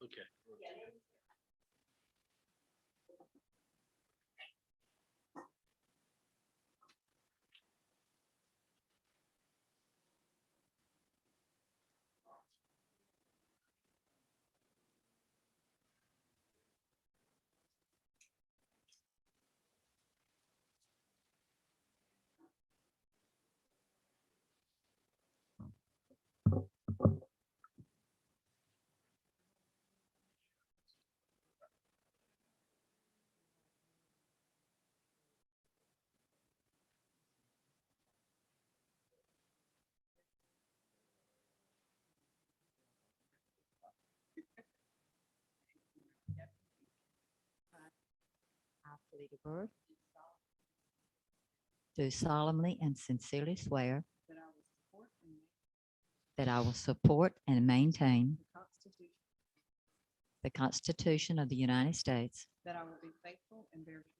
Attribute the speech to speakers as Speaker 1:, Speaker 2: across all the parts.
Speaker 1: Okay.
Speaker 2: I, Felita Bird. Do solemnly and sincerely swear
Speaker 3: That
Speaker 2: that I
Speaker 3: I will support and make
Speaker 2: will support and maintain
Speaker 3: the Constitution.
Speaker 2: the Constitution of the United States,
Speaker 3: That I will be faithful and bear true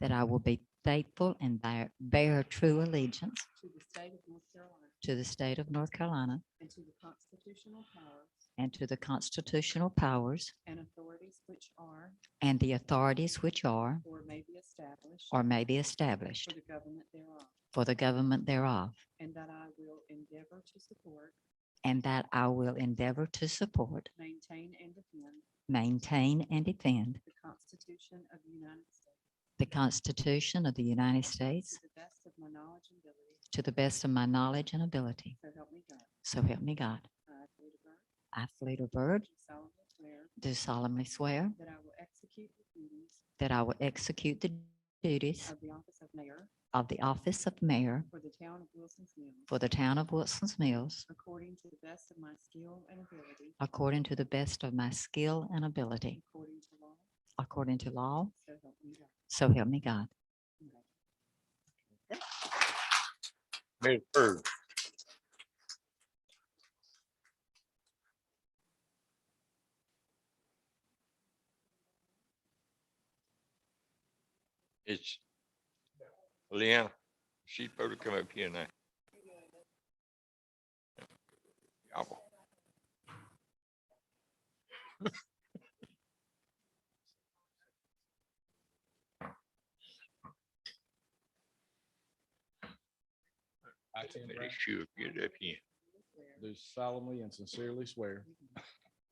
Speaker 2: that I will be faithful and bear, bear true allegiance
Speaker 3: to the state of North Carolina
Speaker 2: to the state of North Carolina
Speaker 3: and to the constitutional powers
Speaker 2: and to the constitutional powers
Speaker 3: and authorities which are
Speaker 2: and the authorities which are
Speaker 3: or may be established
Speaker 2: or may be
Speaker 3: for
Speaker 2: established
Speaker 3: the government thereof.
Speaker 2: for the government thereof,
Speaker 3: And that I will endeavor to support,
Speaker 2: and that I will endeavor to support,
Speaker 3: maintain, and defend
Speaker 2: maintain, and defend
Speaker 3: the Constitution of the United States
Speaker 2: the Constitution of the United States
Speaker 3: to the best of my knowledge and ability.
Speaker 2: to the best of my knowledge and ability.
Speaker 3: So help me God.
Speaker 2: So help me God.
Speaker 3: I, Rita Bird,
Speaker 2: I, Felita Bird,
Speaker 3: do solemnly swear
Speaker 2: do solemnly swear
Speaker 3: that I will execute the duties
Speaker 2: that I will execute the duties
Speaker 3: of the office of mayor
Speaker 2: of the office of mayor
Speaker 3: for the town of Wilson's Mills.
Speaker 2: for the town of Wilson's Mills
Speaker 3: According to the best of my skill and ability.
Speaker 2: according to the best of my skill and ability,
Speaker 3: According to law.
Speaker 2: according to law.
Speaker 3: So help me God.
Speaker 2: So help me God.
Speaker 3: Congratulations.
Speaker 1: Mayor Bird.
Speaker 4: It's Leanna. She's supposed to come up here now. Y'all.
Speaker 1: I, Tim
Speaker 4: Let
Speaker 1: Brown,
Speaker 4: She'll get up here.
Speaker 3: Swear
Speaker 1: Do solemnly and sincerely swear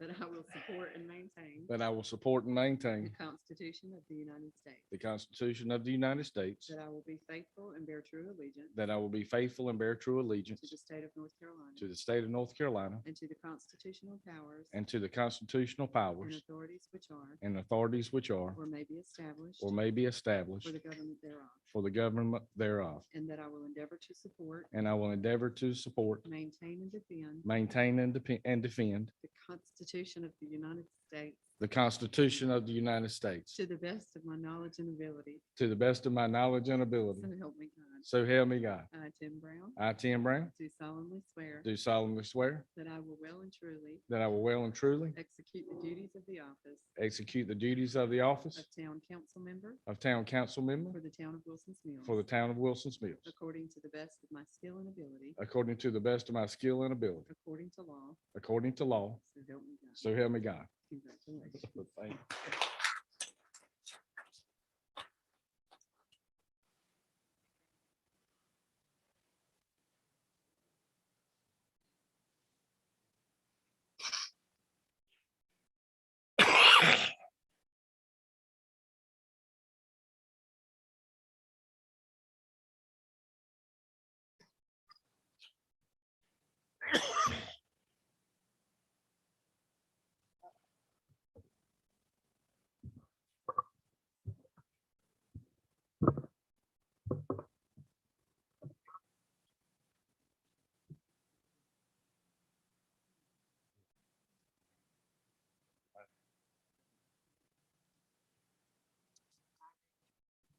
Speaker 3: That I will support and maintain
Speaker 1: that I will support and
Speaker 3: the
Speaker 1: maintain
Speaker 3: Constitution of the United States.
Speaker 1: the Constitution of the United States,
Speaker 3: That I will be faithful and bear true allegiance
Speaker 1: that I will be faithful and bear true allegiance
Speaker 3: to the state of North Carolina
Speaker 1: to the state of North Carolina
Speaker 3: and to the constitutional powers
Speaker 1: and to the constitutional
Speaker 3: and
Speaker 1: powers
Speaker 3: authorities which are
Speaker 1: and authorities which are
Speaker 3: or may be established
Speaker 1: or may be
Speaker 3: for
Speaker 1: established
Speaker 3: the government thereof.
Speaker 1: for the government thereof,
Speaker 3: And that I will endeavor to support,
Speaker 1: and I will endeavor to support,
Speaker 3: maintain, and defend
Speaker 1: maintain, and depe- and defend
Speaker 3: the Constitution of the United States
Speaker 1: the Constitution of the United States
Speaker 3: to the best of my knowledge and ability.
Speaker 1: to the best of my knowledge and
Speaker 3: So
Speaker 1: ability.
Speaker 3: help me God.
Speaker 1: So help me God.
Speaker 3: I, Tim Brown,
Speaker 1: I, Tim Brown,
Speaker 3: do solemnly swear
Speaker 1: do solemnly swear
Speaker 3: that I will well and truly
Speaker 1: that I will well and truly
Speaker 3: execute the duties of the office
Speaker 1: execute the duties of the office
Speaker 3: of town council member
Speaker 1: of town council
Speaker 3: for
Speaker 1: member
Speaker 3: the town of Wilson's Mills.
Speaker 1: for the town of Wilson's Mills,
Speaker 3: According to the best of my skill and ability,
Speaker 1: according to the best of my skill and ability,
Speaker 3: according to law,
Speaker 1: according to law.
Speaker 3: so help me God.
Speaker 1: So help me God.
Speaker 3: Congratulations.
Speaker 1: Thank you.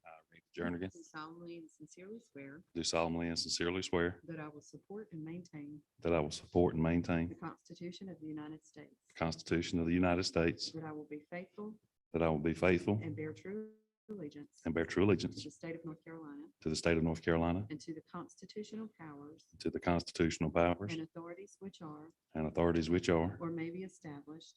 Speaker 5: I, Ray Jernigan,
Speaker 3: Do solemnly and sincerely swear
Speaker 5: do solemnly and sincerely swear
Speaker 3: that I will support and maintain
Speaker 5: that I will support and maintain
Speaker 3: the Constitution of the United States,
Speaker 5: the Constitution of the United States,
Speaker 3: that I will be faithful
Speaker 5: that I will be faithful
Speaker 3: and bear true allegiance
Speaker 5: and bear true
Speaker 3: to
Speaker 5: allegiance
Speaker 3: the state of North Carolina
Speaker 5: to the state of North Carolina,
Speaker 3: and to the constitutional powers
Speaker 5: to the constitutional powers
Speaker 3: and authorities which are
Speaker 5: and authorities which are
Speaker 3: or may be established